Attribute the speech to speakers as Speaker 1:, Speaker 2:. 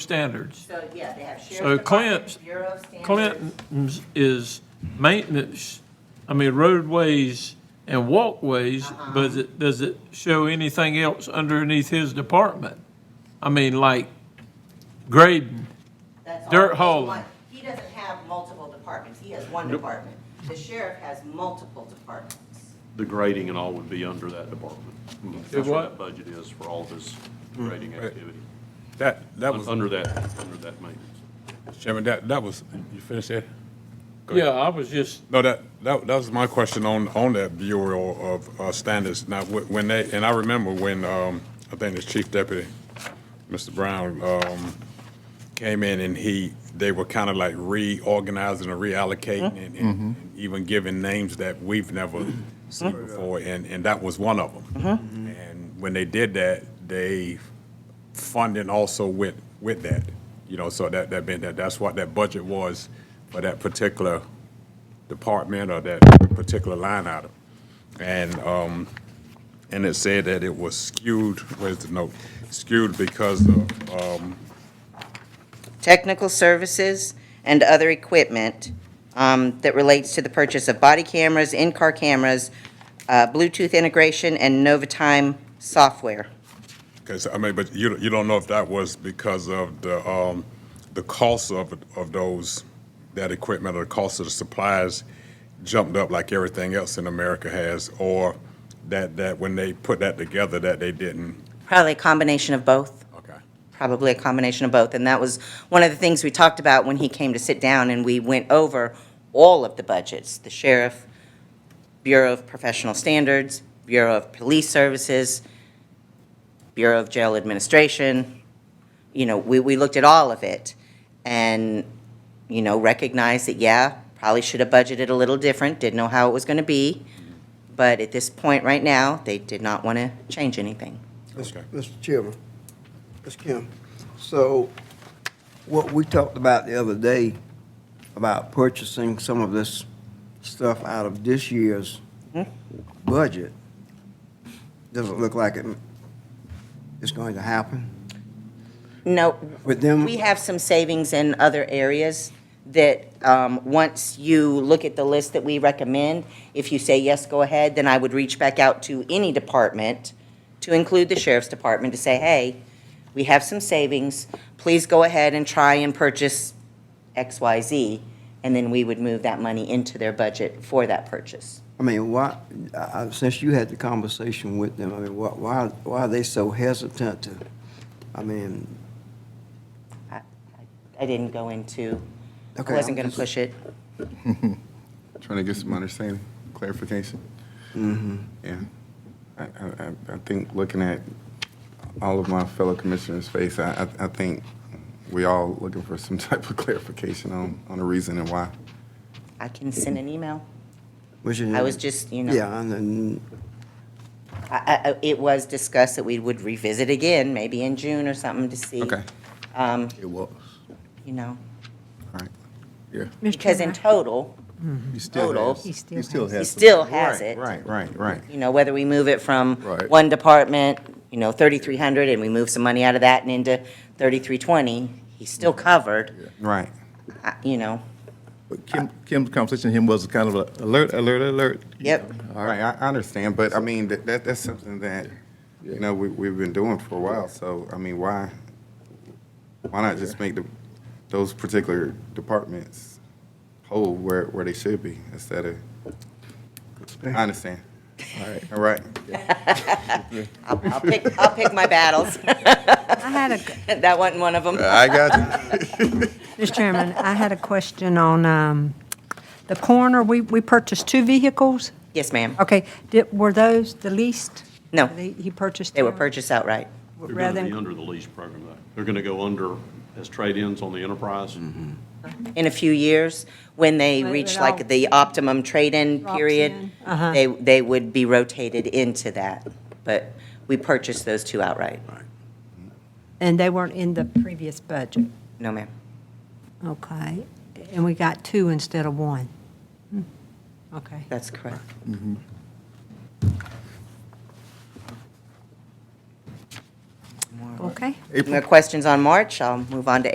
Speaker 1: standards.
Speaker 2: So, yeah, they have
Speaker 1: So
Speaker 2: sheriff's department,
Speaker 1: Clint-
Speaker 2: Bureau of Standards.
Speaker 1: Clinton's is maintenance, I mean roadways and walkways, but it- does it show anything else underneath his department? I mean, like grading,
Speaker 2: That's all.
Speaker 1: Dirt
Speaker 2: He's
Speaker 1: hauling.
Speaker 2: one- He doesn't have multiple departments, he has one department. The sheriff has multiple departments.
Speaker 3: The grading and all would be under that department. That's
Speaker 1: what?
Speaker 3: the budget is for all of his grading
Speaker 4: right.
Speaker 3: activity,
Speaker 4: That, that was,
Speaker 3: under that, under that maintenance.
Speaker 4: Chairman, that, that was, you finished that? Go
Speaker 1: yeah,
Speaker 4: ahead.
Speaker 1: I was just,
Speaker 4: No, that, that, that was my question on, on that Bureau of uh, Standards. Now, wh- when they, and I remember when, um, I think it's Chief Deputy, Mr. Brown, um, came in and he, they were kind of like reorganizing and reallocating and, and even giving names that we've never seen before, and, and that was one of them. And when they did that, they funding also went with that, you know, so that, that meant that, that's what that budget was for that particular department or that particular line item. And, um, and it said that it was skewed, where's the note? Skewed because of, um,
Speaker 2: Technical services and other equipment um, that relates to the purchase of body cameras, in-car cameras, uh, Bluetooth integration, and Novatime software.
Speaker 4: Because, I mean, but you, you don't know if that was because of the, um, the cost of, of those, that equipment or the cost of the supplies jumped up like everything else in America has, or that, that when they put that together, that they didn't.
Speaker 2: Probably a combination of both.
Speaker 4: Okay.
Speaker 2: probably a combination of both. And that was one of the things we talked about when he came to sit down, and we went over all of the budgets, the sheriff, Bureau of Professional Standards, Bureau of Police Services, Bureau of Jail Administration. You know, we, we looked at all of it and, you know, recognized that, yeah, probably should have budgeted a little different, didn't know how it was going to be. But at this point right now, they did not want to change anything.
Speaker 4: Okay.
Speaker 5: Mr. Chairman, Ms. Kim, so what we talked about the other day, about purchasing some of this stuff out of this year's
Speaker 2: Hmm?
Speaker 5: budget, doesn't look like it is going to happen
Speaker 2: No,
Speaker 5: with them.
Speaker 2: We have some savings in other areas that, um, once you look at the list that we recommend, if you say yes, go ahead, then I would reach back out to any department, to include the sheriff's department, to say, hey, we have some savings, please go ahead and try and purchase X, Y, Z, and then we would move that money into their budget for that purchase.
Speaker 5: I mean, why, I- I- since you had the conversation with them, I mean, why, why why are they so hesitant to, I mean,
Speaker 2: I didn't go into, I
Speaker 5: Okay,
Speaker 2: wasn't gonna
Speaker 5: I'm just-
Speaker 2: push it.
Speaker 6: Trying to get some understanding, clarification.
Speaker 2: Mm-hmm.
Speaker 6: Yeah. I, I, I- I think looking at all of my fellow commissioners' face, I, I- I think we all looking for some type of clarification on, on the reason and why.
Speaker 2: I can send an email.
Speaker 5: was it?
Speaker 2: I was just, you know.
Speaker 5: Yeah, and then,
Speaker 2: I- I- I- It was discussed that we would revisit again, maybe in June or something, to see,
Speaker 6: Okay,
Speaker 2: Um,
Speaker 4: It was.
Speaker 2: you know.
Speaker 6: all right.
Speaker 2: Because in total,
Speaker 6: You
Speaker 2: Total.
Speaker 6: has-
Speaker 2: He
Speaker 7: still
Speaker 6: you
Speaker 7: has
Speaker 2: he
Speaker 6: has-
Speaker 2: still has
Speaker 6: Right,
Speaker 2: it.
Speaker 6: Right, right, right.
Speaker 2: You know, whether we move it from
Speaker 6: Right.
Speaker 2: one department, you know, 3,300, and we move some money out of that and into 3,320, he's still covered,
Speaker 6: Right.
Speaker 2: I- you know.
Speaker 7: But Kim, Kim's conversation with him was kind of a alert, alert, alert.
Speaker 2: Yep.
Speaker 6: All right, I, I understand, but I mean, that, that, that's something that, you know, we, we've been doing for a while, so, I mean, why, why not just make the, those particular departments whole where, where they should be instead of, I understand. All right. All right,
Speaker 2: I'll I'll pick, I'll pick my battles.
Speaker 7: I had a,
Speaker 2: That wasn't one of them.
Speaker 6: I got you.
Speaker 8: Mr. Chairman, I had a question on um, the coroner. We we purchased two vehicles.
Speaker 2: Yes, ma'am.
Speaker 8: Okay, did- were those the leased?
Speaker 2: No.
Speaker 8: They- He purchased?
Speaker 2: They were
Speaker 8: them
Speaker 2: purchased outright.
Speaker 3: They're going
Speaker 8: rather
Speaker 3: to be
Speaker 8: than-
Speaker 3: under the lease program, though. They're going to go under as trade-ins on the enterprise.
Speaker 2: in a few years, when they
Speaker 8: When
Speaker 2: reach
Speaker 8: it all
Speaker 2: like the optimum trade-in
Speaker 8: drops
Speaker 2: period,
Speaker 8: in.
Speaker 2: they, they would be rotated into that. But we purchased those two outright.
Speaker 8: And they weren't in the previous budget?
Speaker 2: No, ma'am.
Speaker 8: Okay, and we got two instead of one? Hmm, Okay.
Speaker 2: That's correct.
Speaker 8: Well, Okay.
Speaker 7: April.
Speaker 2: No questions on March, I'll move on to